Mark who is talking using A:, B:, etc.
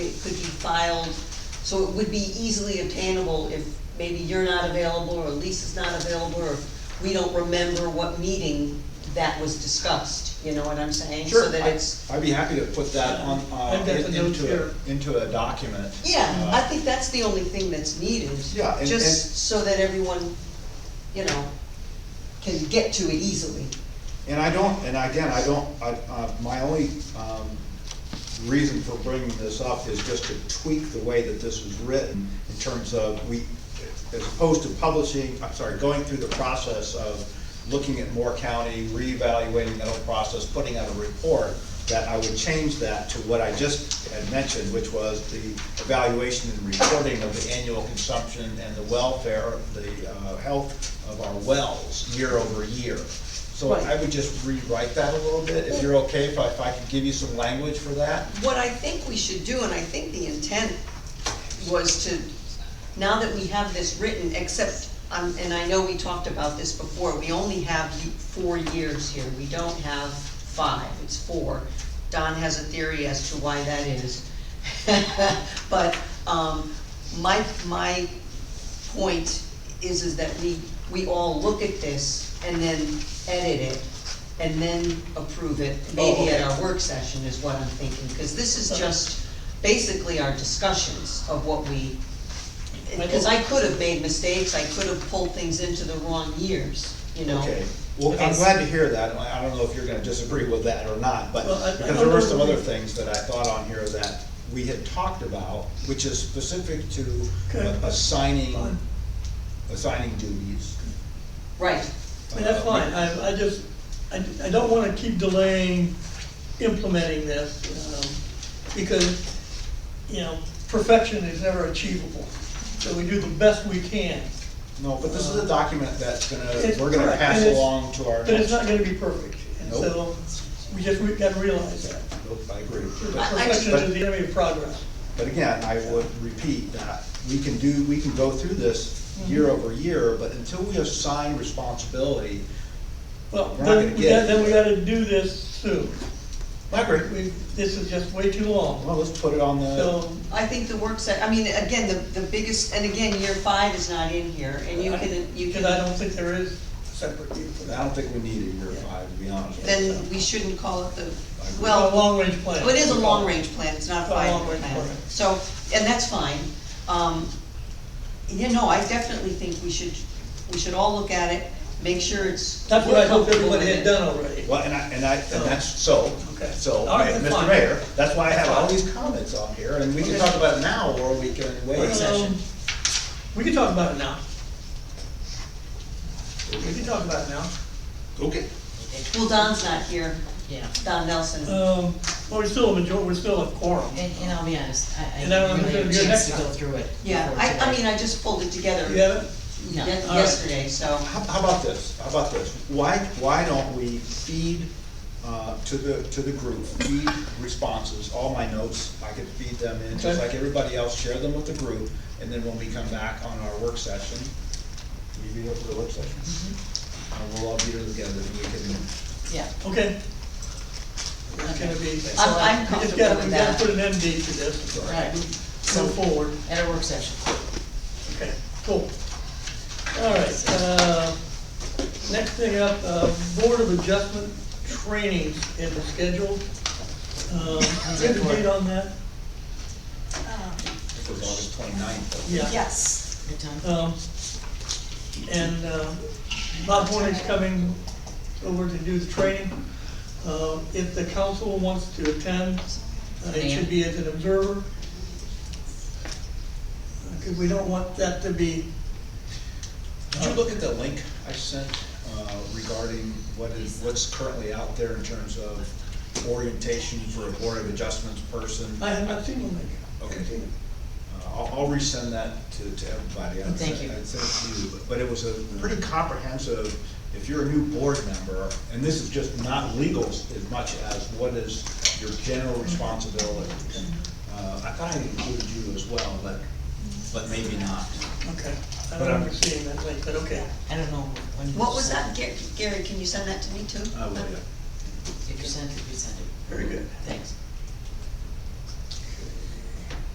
A: filed, so it would be easily obtainable if maybe you're not available, or Lisa's not available, or we don't remember what meeting that was discussed, you know what I'm saying?
B: Sure,
A: So that
B: I-
A: it's,
B: I'd be happy to put that on, uh,
C: I've got the
B: in-
C: notes
B: into,
C: here.
B: a- into a document.
A: yeah,
B: Uh,
A: I think that's the only thing that's needed.
B: Yeah, and- and-
A: Just so that everyone, you know, can get to it easily.
B: And I don't, and again, I don't, I, uh, my only, um, reason for bringing this up is just to tweak the way that this was written in terms of we, as opposed to publishing, I'm sorry, going through the process of looking at Moore County, reevaluating that whole process, putting out a report, that I would change that to what I just had mentioned, which was the evaluation and reporting of the annual consumption and the welfare, the, uh, health of our wells year over year. So I
A: Right.
B: would just rewrite that a little bit, if you're okay, if I, if I could give you some language for that.
A: What I think we should do, and I think the intent was to, now that we have this written, except, um, and I know we talked about this before, we only have the four years here, we don't have five, it's four. Don has a theory as to why that is. But, um, my, my point is, is that we, we all look at this and then edit it and then approve it,
B: Oh,
A: maybe
B: okay.
A: at our work session is what I'm thinking, because this is just basically our discussions of what we, because I could have made mistakes, I could have pulled things into the wrong years, you know?
B: Okay, well, I'm
A: Because-
B: glad to hear that, I I don't know if you're gonna disagree with that or not, but,
C: Well, I- I
B: because there
C: don't
B: were some
C: know.
B: other things that I thought on here that we had talked about, which is specific to
C: Okay.
B: assigning,
C: Fine.
B: assigning duties. Uh,
A: Right,
C: I mean, that's fine, I, I just, I, I don't wanna keep delaying implementing this, um, because, you know, perfection is never achievable, so we do the best we can.
B: No, but this is a document that's gonna,
C: uh, It's
B: we're gonna
C: correct,
B: pass
C: and it's-
B: along to our
C: But
B: next.
C: it's not gonna be perfect, and so,
B: Nope.
C: we just, we gotta realize that.
B: Nope, I agree.
A: I- I just-
C: Perfection is the enemy of progress.
B: But again, I would repeat that we can do, we can go through this
C: Mm-hmm.
B: year over year, but until we assign responsibility,
C: Well,
B: We're not
C: then
B: gonna
C: we
B: get
C: gotta,
B: it.
C: then we gotta do this soon.
B: I agree.
C: We, this is just way too long,
B: Well, let's put it on the,
C: so,
A: I think the work se, I mean, again, the, the biggest, and again, year five is not in here, and you can, you
C: because I
A: can,
C: don't think there is separate year for
B: I
C: that.
B: don't think we need a year five, to be honest. with you.
A: then we shouldn't call it the, well.
C: Well, long-range plan.
A: Well, it is a long-range plan, it's not a
C: It's a
A: five-year
C: long-range
A: plan,
C: plan.
A: so, and that's fine. Um, You know, I definitely think we should, we should all look at it, make sure it's.
C: That's what I hope
A: comfortable
C: everybody
A: with
C: had
A: it.
C: done already.
B: Well, and I, and I, and that's, so,
C: Okay.
B: so,
C: All right,
B: Mr.
C: fine.
B: Mayor, that's why I have all
C: Fine.
B: these comments on here, and we can
C: Okay.
B: talk about it now, or we can wait.
C: Um, We can talk about it now. We can talk about it now.
B: Okay.
A: Well, Don's not here,
D: Yeah,
A: Don Nelson.
C: Um, well, we're still a major, we're still a quorum.
D: and, and I'll be honest, I,
C: And I
D: I
C: don't
D: really
C: think
D: have a
C: you're
D: chance to
C: next
D: go
C: time.
D: through it.
A: Yeah,
D: before
A: I, I
D: today.
A: mean, I just pulled it together
C: You have it?
A: ye-
D: No.
C: right.
A: yesterday, so.
B: How, how about this, how about this, why, why don't we feed, uh, to the, to the group, feed responses, all my notes, I could feed them in, just
C: Okay.
B: like everybody else, share them with the group, and then when we come back on our work session, we meet up for the work session. And we'll all be here together, and we can
D: Yeah,
C: Okay. It's gonna be.
A: I'm, I'm
C: We just
A: comfortable
C: gotta,
A: with
C: we gotta
A: that.
C: put an end date to this,
D: all right,
C: go forward.
D: at a work session.
C: Okay, cool. All right, uh, next thing up, uh, Board of Adjustment trainings in the schedule. Um, do you have a date on that?
B: for August twenty-ninth.
C: Yeah.
E: Yes,
D: Good time.
C: Um, and, uh, Bob Hornick's coming over to do the training. Um, if the council wants to attend, uh, it should be as an observer. Because we don't want that to be,
B: Did you look at the link I sent uh, regarding what is, what's currently out there in terms of orientation for a Board of Adjustments person?
C: I have not seen one like
B: Okay. Uh, I'll, I'll resend that to, to everybody. I would
D: Thank
B: send-
D: you.
B: I'd send it to you, but- but it was a pretty comprehensive, if you're a new board member, and this is just not legal s- as much as what is your general responsibilities. Uh, I thought I included you as well, but, but maybe not.
C: Okay, I
B: But
C: don't
B: I'm-
C: remember seeing that link, but okay.
D: I don't know when. you
A: What was that,
D: sent
A: Gary, Gary, can you send that to me too?
B: I will, yeah.
D: it. If you sent it, you sent it.
C: Very good.
D: Thanks.